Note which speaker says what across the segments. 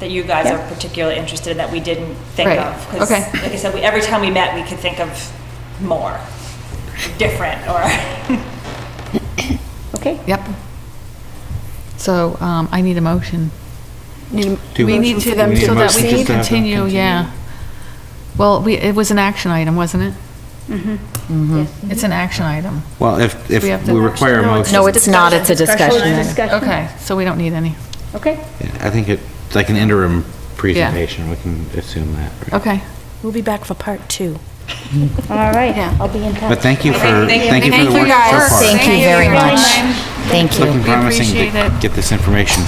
Speaker 1: that you guys are
Speaker 2: Yeah.
Speaker 1: particularly interested in that we didn't think
Speaker 2: Right,
Speaker 1: of. 'Cause
Speaker 2: okay.
Speaker 1: Like I said, we- every time we met, we could think of more, different, or,
Speaker 2: Okay.
Speaker 3: Yep. So um, I need a motion.
Speaker 4: Two
Speaker 3: We need
Speaker 4: motions.
Speaker 3: to them
Speaker 4: We need
Speaker 3: so
Speaker 4: a
Speaker 3: that
Speaker 4: motion
Speaker 3: we
Speaker 4: to
Speaker 3: can
Speaker 4: have them
Speaker 3: continue, yeah. Well, we, it was an action item, wasn't it? Mm-hmm. It's an action item.
Speaker 4: Well, if, if
Speaker 3: We have to-
Speaker 4: we require a motion,
Speaker 5: No, it's not, it's a discussion. item.
Speaker 3: Okay, so we don't need any.
Speaker 2: Okay,
Speaker 4: I think it, like an interim presentation, we can assume that. right?
Speaker 3: Okay.
Speaker 5: We'll be back for part two.
Speaker 2: all right, I'll be in touch.
Speaker 4: But thank you for, thank you for
Speaker 3: Thank
Speaker 4: the
Speaker 3: you
Speaker 4: work so
Speaker 3: guys.
Speaker 4: far.
Speaker 5: Thank you very much. Thank you.
Speaker 4: Looking
Speaker 3: We
Speaker 4: promising
Speaker 3: appreciate
Speaker 4: to
Speaker 3: it.
Speaker 4: get this information.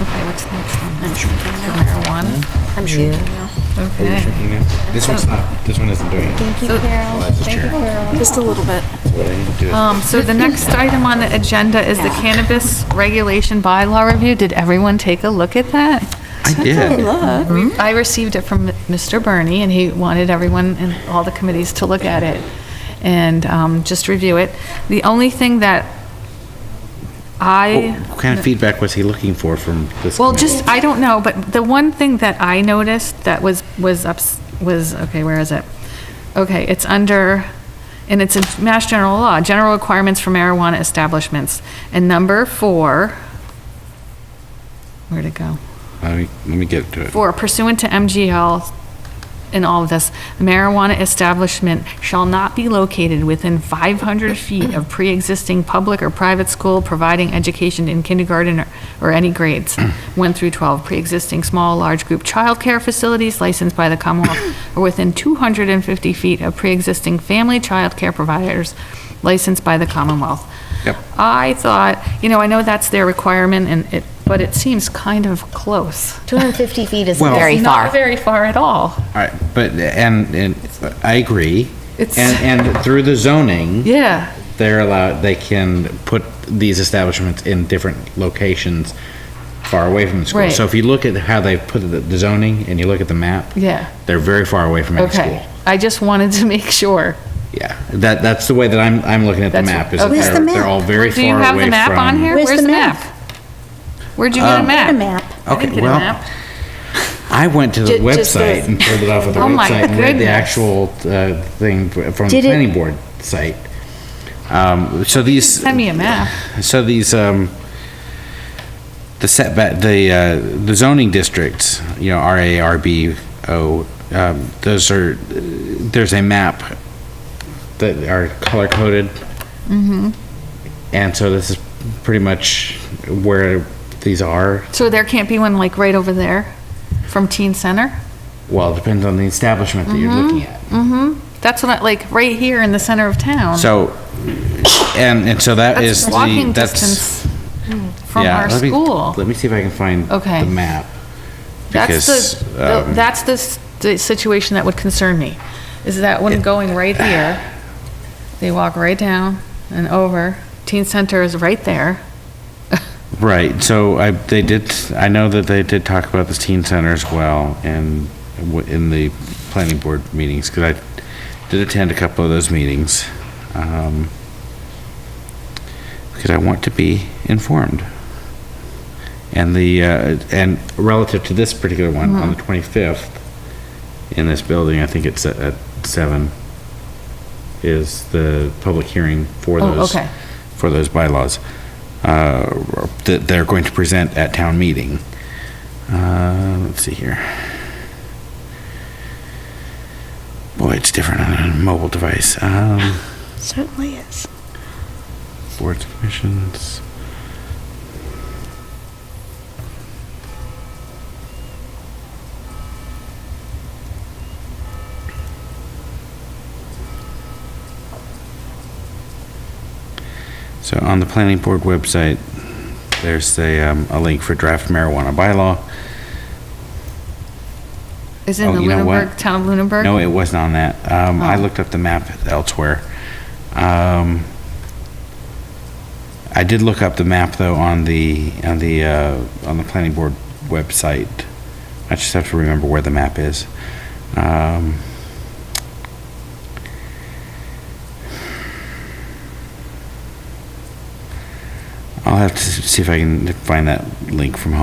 Speaker 3: Okay, what's next on that? Marijuana?
Speaker 5: I'm shrinking now.
Speaker 3: Okay.
Speaker 4: This one's not, this one isn't doing it. Thank you, Carol. Well, that's the chair.
Speaker 5: Just a little bit.
Speaker 4: What I need to do is-
Speaker 3: Um, so the next item on the agenda is the cannabis regulation bylaw review. Did everyone take a look at that?
Speaker 4: I did.
Speaker 3: I received it from Mr. Bernie, and he wanted everyone and all the committees to look at it and um, just review it. The only thing that I,
Speaker 4: What kind of feedback was he looking for from this?
Speaker 3: well,
Speaker 4: committee?
Speaker 3: just, I don't know, but the one thing that I noticed that was, was ups, was, okay, where is it? Okay, it's under, and it's in Mass General Law, General Requirements for Marijuana Establishments. And number four, where'd it go?
Speaker 4: Let me, let me get to it.
Speaker 3: For pursuant to MGL in all of this, marijuana establishment shall not be located within 500 feet of pre-existing public or private school providing education in kindergarten or- or any grades, 1 through 12, pre-existing small, large group childcare facilities licensed by the Commonwealth, or within 250 feet of pre-existing family childcare providers licensed by the Commonwealth.
Speaker 4: Yep.
Speaker 3: I thought, you know, I know that's their requirement, and it, but it seems kind of close.
Speaker 5: 250 feet isn't
Speaker 4: Well-
Speaker 5: very
Speaker 3: Not
Speaker 5: far.
Speaker 3: very far at all.
Speaker 4: All right, but, and, and I agree.
Speaker 3: It's-
Speaker 4: And, and through the zoning.
Speaker 3: Yeah.
Speaker 4: They're allowed, they can put these establishments in different locations far away from the school.
Speaker 3: Right.
Speaker 4: So if you look at how they put the the zoning and you look at the map.
Speaker 3: Yeah.
Speaker 4: They're very far away from any school.
Speaker 3: Okay. I just wanted to make sure.
Speaker 4: Yeah, that, that's the way that I'm, I'm looking at the
Speaker 3: That's-
Speaker 4: map, is that
Speaker 3: okay. Where's
Speaker 4: they're,
Speaker 3: the
Speaker 4: they're all very
Speaker 3: Do you
Speaker 4: far away
Speaker 3: have
Speaker 4: from. Um,
Speaker 3: the map on here?
Speaker 2: Where's the map?
Speaker 3: Where'd you get a map?
Speaker 2: A map.
Speaker 3: I didn't
Speaker 4: Okay,
Speaker 3: get a
Speaker 4: well,
Speaker 3: map.
Speaker 4: I went to the
Speaker 5: Ju- just
Speaker 4: website
Speaker 5: the-
Speaker 4: and pulled it off of the
Speaker 3: Oh my
Speaker 4: website and read the
Speaker 3: goodness.
Speaker 4: actual, uh, thing f- from the
Speaker 2: Did it-
Speaker 4: planning board site. Um, so these.
Speaker 3: Send me a map.
Speaker 4: So these, um, the setback, the, uh, the zoning districts, you know, RA, RB, O, um, those are, there's a map that are color coded.
Speaker 3: Mm-hmm.
Speaker 4: And so this is pretty much where these are.
Speaker 3: So there can't be one like right over there from Teen Center?
Speaker 4: Well, it depends on the establishment that you're looking at.
Speaker 3: Mm-hmm. That's what I, like, right here in the center of town.
Speaker 4: So, and, and so that
Speaker 3: Um, That's
Speaker 4: is the,
Speaker 3: walking
Speaker 4: that's.
Speaker 3: distance from
Speaker 4: yeah,
Speaker 3: our
Speaker 4: let me-
Speaker 3: school.
Speaker 4: Let me see if I can find
Speaker 3: Okay.
Speaker 4: the map.
Speaker 3: That's
Speaker 4: because,
Speaker 3: the, the-
Speaker 4: um,
Speaker 3: that's the, s- the situation that would concern me, is that one going right here, they walk right down and over, teen center is right there.
Speaker 4: Right, so I, they did, I know that they did talk about the teen center as well and w- in the planning board meetings, because I did attend a couple of those meetings. um, Because I want to be informed. And the, uh, and relative to this particular one, on the
Speaker 3: Mm-hmm.
Speaker 4: 25th, in this building, I think it's at- at 7, is the public hearing for
Speaker 3: Oh,
Speaker 4: those,
Speaker 3: okay.
Speaker 4: for those bylaws uh, that they're going to present at town meeting. Uh, Let's see here. Boy, it's different on a mobile device. Um,
Speaker 5: Certainly is.
Speaker 4: Boards, commissions. So on the planning board website, there's a, um, a link for draft marijuana bylaw.
Speaker 3: Is it in
Speaker 4: Oh,
Speaker 3: the
Speaker 4: you know what?
Speaker 3: Lunenburg, town of Lunenburg?
Speaker 4: No, it wasn't on that. Um, I
Speaker 3: Oh.
Speaker 4: looked up the map elsewhere. Um, I did look up the map though on the, on the, uh, on the planning board website. I just have to remember where the map is. Um, I'll have to see if I can find that link from home.